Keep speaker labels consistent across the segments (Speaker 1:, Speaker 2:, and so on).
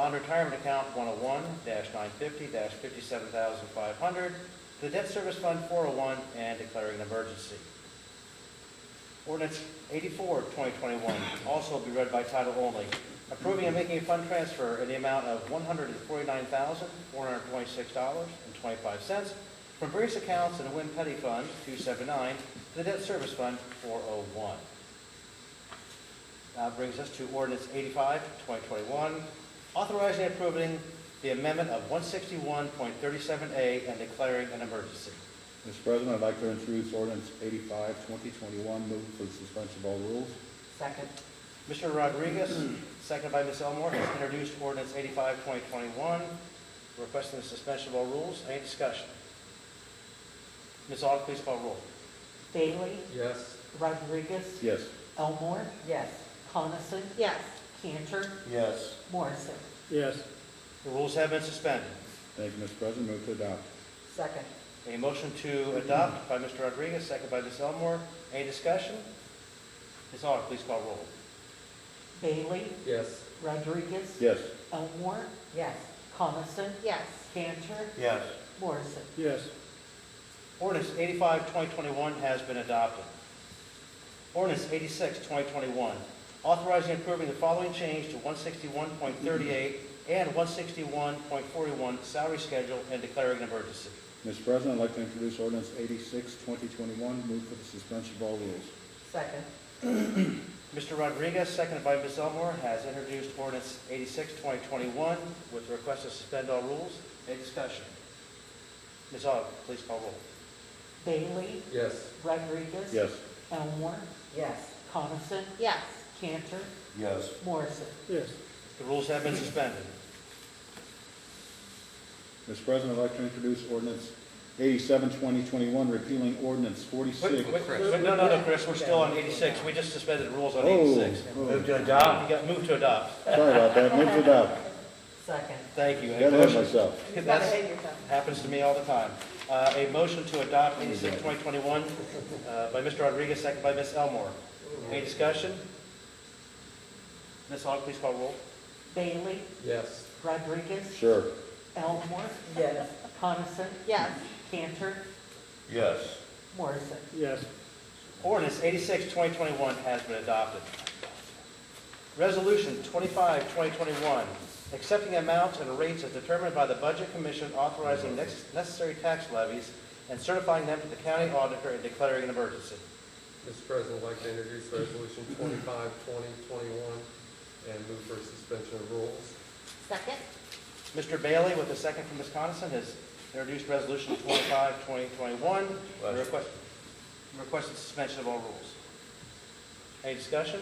Speaker 1: on retirement account 101-950, $57,500, the debt service fund 401, and declaring an emergency. Ordinance 84, 2021, also be read by title only, approving and making a fund transfer in the amount of $149,426.25 from various accounts in the Win Petty Fund 279 to the Debt Service Fund 401. Now brings us to ordinance 85, 2021, authorizing and approving the amendment of 161.37A and declaring an emergency.
Speaker 2: Mr. President, I'd like to introduce ordinance 85, 2021, move for the suspension of all rules.
Speaker 3: Second.
Speaker 1: Mr. Rodriguez, seconded by Ms. Elmore, has introduced ordinance 85, 2021, requesting the suspension of all rules. Any discussion? Ms. Aug, please call roll.
Speaker 3: Bailey?
Speaker 4: Yes.
Speaker 3: Rodriguez?
Speaker 2: Yes.
Speaker 3: Elmore?
Speaker 5: yes,
Speaker 3: Coniston?
Speaker 6: yes,
Speaker 3: Cantor?
Speaker 4: Yes.
Speaker 3: Morrison?
Speaker 4: Yes.
Speaker 1: The rules have been suspended.
Speaker 2: Thank you, Mr. President, move to adopt.
Speaker 5: second,
Speaker 1: A motion to adopt by Mr. Rodriguez, seconded by Ms. Elmore. Any discussion? Ms. Aug, please call roll.
Speaker 3: Bailey?
Speaker 4: Yes.
Speaker 3: Rodriguez?
Speaker 2: Yes.
Speaker 3: Elmore?
Speaker 5: yes,
Speaker 3: Coniston?
Speaker 6: yes,
Speaker 3: Cantor?
Speaker 4: Yes.
Speaker 3: Morrison?
Speaker 4: Yes.
Speaker 1: Ordinance 85, 2021 has been adopted. Ordinance 86, 2021, authorizing and approving the following change to 161.38 and 161.41 salary schedule and declaring an emergency.
Speaker 2: Mr. President, I'd like to introduce ordinance 86, 2021, move for the suspension of all rules.
Speaker 5: second,
Speaker 1: Mr. Rodriguez, seconded by Ms. Elmore, has introduced ordinance 86, 2021 with the request to suspend all rules. Any discussion? Ms. Aug, please call roll.
Speaker 3: Bailey?
Speaker 4: Yes.
Speaker 3: Rodriguez?
Speaker 2: Yes.
Speaker 3: Elmore?
Speaker 5: yes,
Speaker 3: Coniston?
Speaker 6: yes,
Speaker 3: Cantor?
Speaker 4: Yes.
Speaker 3: Morrison?
Speaker 4: Yes.
Speaker 1: The rules have been suspended.
Speaker 2: Mr. President, I'd like to introduce ordinance 87, 2021, repealing ordinance
Speaker 1: Wait,
Speaker 2: 46.
Speaker 1: wait, wait, No, no, no, Chris, we're still on 86. We just suspended the rules on
Speaker 2: Oh,
Speaker 1: 86.
Speaker 2: oh,
Speaker 4: to
Speaker 1: Adopt, you got moved to adopt.
Speaker 2: Sorry about that, move to adopt.
Speaker 5: second,
Speaker 1: Thank you. A
Speaker 2: Got ahead of
Speaker 1: motion-
Speaker 2: myself.
Speaker 6: you got
Speaker 1: That's-
Speaker 6: ahead of yourself.
Speaker 1: happens to me all the time. Uh, a motion to adopt 86, 2021 uh, by Mr. Rodriguez, second by Ms. Elmore. Any discussion? Ms. Aug, please call roll.
Speaker 3: Bailey?
Speaker 4: Yes.
Speaker 3: Rodriguez?
Speaker 2: Sure.
Speaker 3: Elmore?
Speaker 5: yes,
Speaker 3: Coniston?
Speaker 6: yes,
Speaker 3: Cantor?
Speaker 4: Yes.
Speaker 3: Morrison?
Speaker 4: Yes.
Speaker 1: Ordinance 86, 2021 has been adopted. Resolution 25, 2021, accepting amounts and rates as determined by the Budget Commission authorizing nex- necessary tax levies and certifying them to the county auditor and declaring an emergency.
Speaker 7: Mr. President, I'd like to introduce Resolution 25, 2021, and move for suspension of rules.
Speaker 6: second,
Speaker 1: Mr. Bailey, with a second from Ms. Coniston, has introduced Resolution 25, 2021,
Speaker 4: Question.
Speaker 1: request- requested suspension of all rules. Any discussion?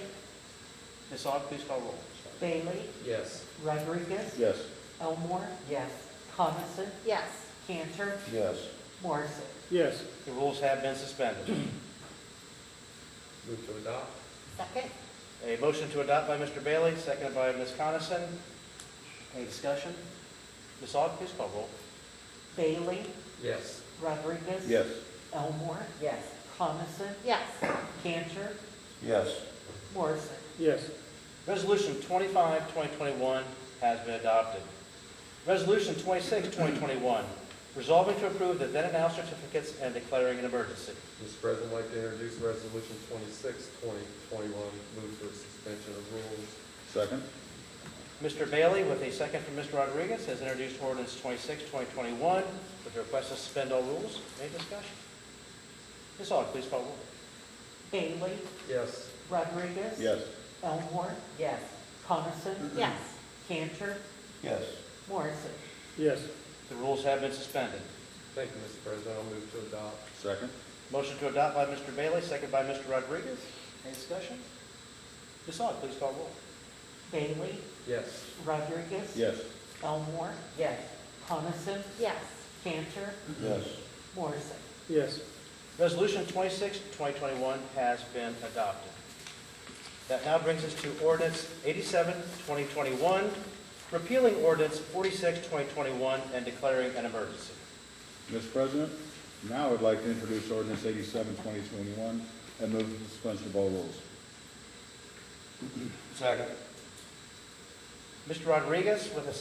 Speaker 1: Ms. Aug, please call roll.
Speaker 3: Bailey?
Speaker 7: Yes,
Speaker 3: Rodriguez?
Speaker 2: Yes.
Speaker 3: Elmore?
Speaker 5: yes,
Speaker 3: Coniston?
Speaker 6: yes,
Speaker 3: Cantor?
Speaker 4: Yes.
Speaker 3: Morrison?
Speaker 4: Yes.
Speaker 1: The rules have been suspended.
Speaker 7: move to adopt.
Speaker 6: second,
Speaker 1: A motion to adopt by Mr. Bailey, seconded by Ms. Coniston. Any discussion? Ms. Aug, please call roll.
Speaker 3: Bailey?
Speaker 7: Yes,
Speaker 3: Rodriguez?
Speaker 2: Yes.
Speaker 3: Elmore?
Speaker 5: yes,
Speaker 3: Coniston?
Speaker 6: yes,
Speaker 3: Cantor?
Speaker 4: Yes.
Speaker 3: Morrison?
Speaker 4: Yes.
Speaker 1: Resolution 25, 2021 has been adopted. Resolution 26, 2021, resolving to approve the then and now certificates and declaring an emergency.
Speaker 7: Mr. President, I'd like to introduce Resolution 26, 2021, move for suspension of rules.
Speaker 2: Second.
Speaker 1: Mr. Bailey, with a second from Mr. Rodriguez, has introduced ordinance 26, 2021, with the request to suspend all rules. Any discussion? Ms. Aug, please call roll.
Speaker 3: Bailey?
Speaker 7: Yes,
Speaker 3: Rodriguez?
Speaker 2: Yes.
Speaker 3: Elmore?
Speaker 5: yes,
Speaker 3: Coniston?
Speaker 6: yes,
Speaker 3: Cantor?
Speaker 4: Yes.
Speaker 3: Morrison?
Speaker 4: Yes.
Speaker 1: The rules have been suspended.
Speaker 7: thank you, Mr. President, I'll move to adopt.
Speaker 2: Second.
Speaker 1: Motion to adopt by Mr. Bailey, second by Mr. Rodriguez. Any discussion? Ms. Aug, please call roll.
Speaker 3: Bailey?
Speaker 7: Yes,
Speaker 3: Rodriguez?
Speaker 2: Yes.
Speaker 3: Elmore?
Speaker 5: yes,
Speaker 3: Coniston?
Speaker 6: yes,
Speaker 3: Cantor?
Speaker 4: Yes.
Speaker 3: Morrison?
Speaker 4: Yes.
Speaker 1: Resolution 26, 2021 has been adopted. That now brings us to ordinance 87, 2021, repealing ordinance 46, 2021, and declaring an emergency.
Speaker 2: Mr. President, now I'd like to introduce ordinance 87, 2021, and move for the suspension of all rules.
Speaker 4: Second.
Speaker 1: Mr. Rodriguez with a